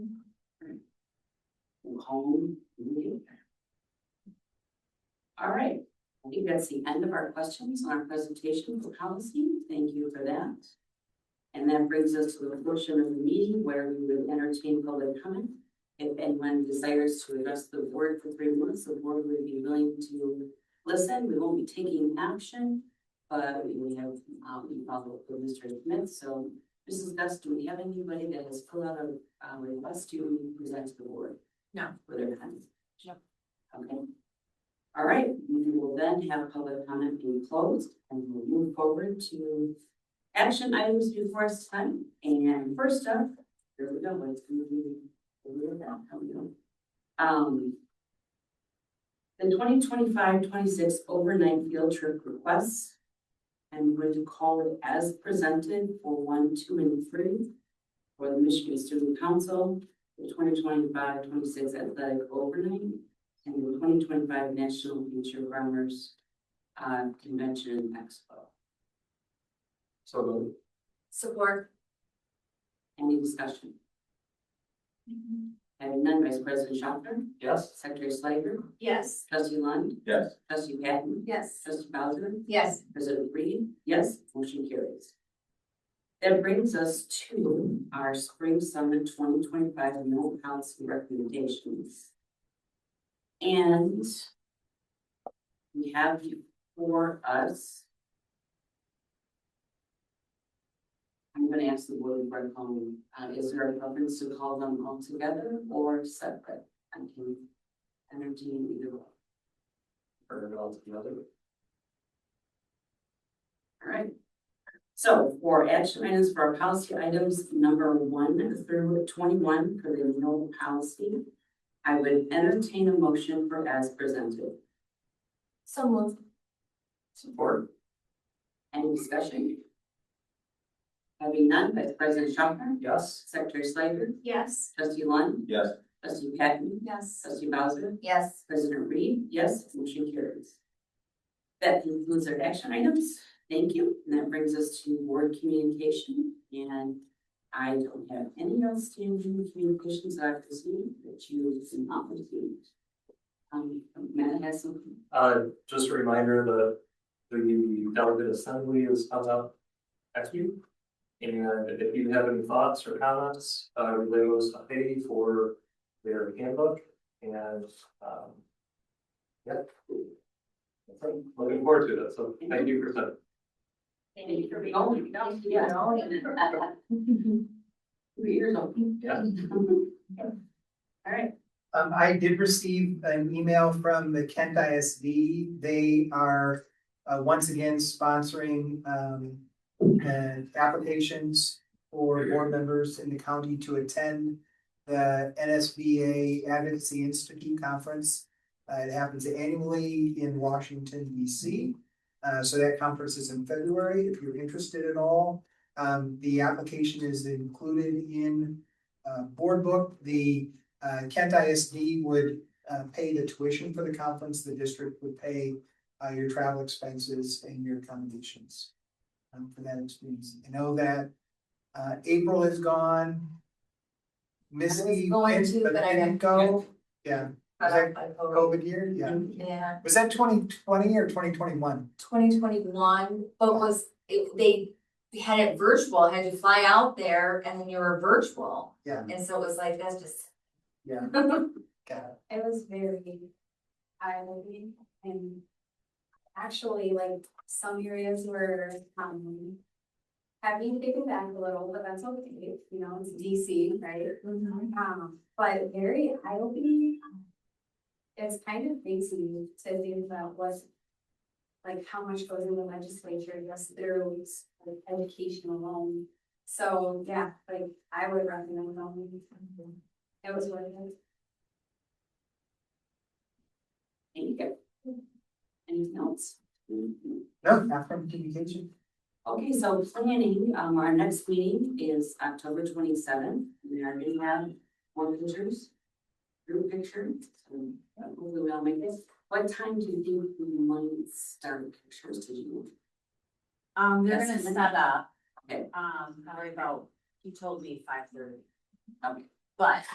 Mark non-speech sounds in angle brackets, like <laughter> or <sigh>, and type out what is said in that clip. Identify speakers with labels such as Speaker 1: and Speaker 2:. Speaker 1: own meeting. All right, I think that's the end of our questions on our presentation for policy. Thank you for that. And that brings us to the portion of the meeting where we will entertain public comment. If anyone desires to address the board for three minutes, the board would be willing to listen. We won't be taking action. But we have, um, we follow up with Mr. Smith, so Mrs. Gus, do we have anybody that has filled out a, uh, request to present to the board?
Speaker 2: No.
Speaker 1: For their comments?
Speaker 2: No.
Speaker 1: Okay. All right, we will then have public comment being closed and we'll move forward to action items before us time. And first up, here we go, it's gonna be, here we go, how we go. Um. The 2025-26 overnight field trip requests. I'm going to call it as presented for one, two, and three for the Michigan Student Council, the 2025-26 athletic overnight, and the twenty twenty-five National Future Runners uh, Convention and Expo.
Speaker 3: So moved.
Speaker 2: Support.
Speaker 1: Any discussion? Having none, Vice President Schopner,
Speaker 3: Yes.
Speaker 1: Secretary Slager,
Speaker 2: Yes.
Speaker 1: Trustee Lund,
Speaker 3: Yes.
Speaker 1: Trustee Patton,
Speaker 2: Yes.
Speaker 1: Trustee Bowser,
Speaker 2: Yes.
Speaker 1: President Reed, yes, motion carries. That brings us to our Spring Summit twenty twenty-five Mill Policy Recommendations. And we have before us. I'm gonna ask the board to bring home, uh, is there a preference to call them all together or separate? I can entertain either one.
Speaker 3: Heard it all together.
Speaker 1: All right. So for action items for our policy items, number one through twenty-one for the no policy, I would entertain a motion for as presented.
Speaker 2: So moved.
Speaker 3: Support.
Speaker 1: Any discussion? Having none, Vice President Schopner,
Speaker 3: Yes.
Speaker 1: Secretary Slager,
Speaker 2: Yes.
Speaker 1: Trustee Lund,
Speaker 3: Yes.
Speaker 1: Trustee Patton,
Speaker 2: Yes.
Speaker 1: Trustee Bowser,
Speaker 2: Yes.
Speaker 1: President Reed, yes, motion carries. That concludes our action items. Thank you. And that brings us to board communication. And I don't have any outstanding communications that I've received that you did not receive. Um, Matt has something.
Speaker 3: Uh, just a reminder, the, the delegate assembly is coming up next week. And if you have any thoughts or comments, uh, relay those to Heidi for their handbook and, um, yeah. That's it. Looking forward to it, so thank you for that.
Speaker 2: Thank you for being.
Speaker 1: Oh, no, yeah. <laughs> Three years old.
Speaker 3: Yeah.
Speaker 1: All right.
Speaker 4: Um, I did receive an email from the Kent ISD. They are, uh, once again sponsoring, um, uh, applications for board members in the county to attend the NSBA Advocacy Institute Conference. Uh, it happens annually in Washington DC. Uh, so that conference is in February, if you're interested at all. Um, the application is included in, uh, board book. The uh, Kent ISD would, uh, pay the tuition for the conference, the district would pay, uh, your travel expenses and your accommodations. um, for that experience. I know that, uh, April is gone. Misty
Speaker 2: going
Speaker 4: went,
Speaker 2: to,
Speaker 4: but
Speaker 2: but I
Speaker 4: didn't go. Yeah, was that COVID year? Yeah.
Speaker 2: Yeah,
Speaker 4: Was that twenty twenty or twenty twenty-one?
Speaker 2: twenty twenty-one, but was, it- they had it virtual, had to fly out there and then you were virtual.
Speaker 4: Yeah.
Speaker 2: And so it was like, that's just.
Speaker 4: Yeah.
Speaker 2: It
Speaker 4: Got it.
Speaker 2: was very eye-opening and actually like some areas were, um,
Speaker 5: having to take it back a little, but that's okay, you know, it's DC, right?
Speaker 2: Mm-hmm.
Speaker 5: Um, but very eye-opening. It's kind of crazy to think about what, like, how much goes in the legislature just through like, education alone. So, yeah, like, I would recommend going. It was worth it.
Speaker 1: Thank you. Anything else?
Speaker 4: No, not from communication.
Speaker 1: Okay, so planning, um, our next meeting is October twenty seventh, we are gonna have more pictures. Group picture, so uh, hopefully we all make this, what time do you think we might start pictures to do?
Speaker 6: Um, they're
Speaker 1: Yes,
Speaker 6: gonna
Speaker 1: and then-
Speaker 6: set up,
Speaker 1: Okay.
Speaker 6: um, probably about, he told me five thirty,
Speaker 1: Okay.
Speaker 6: but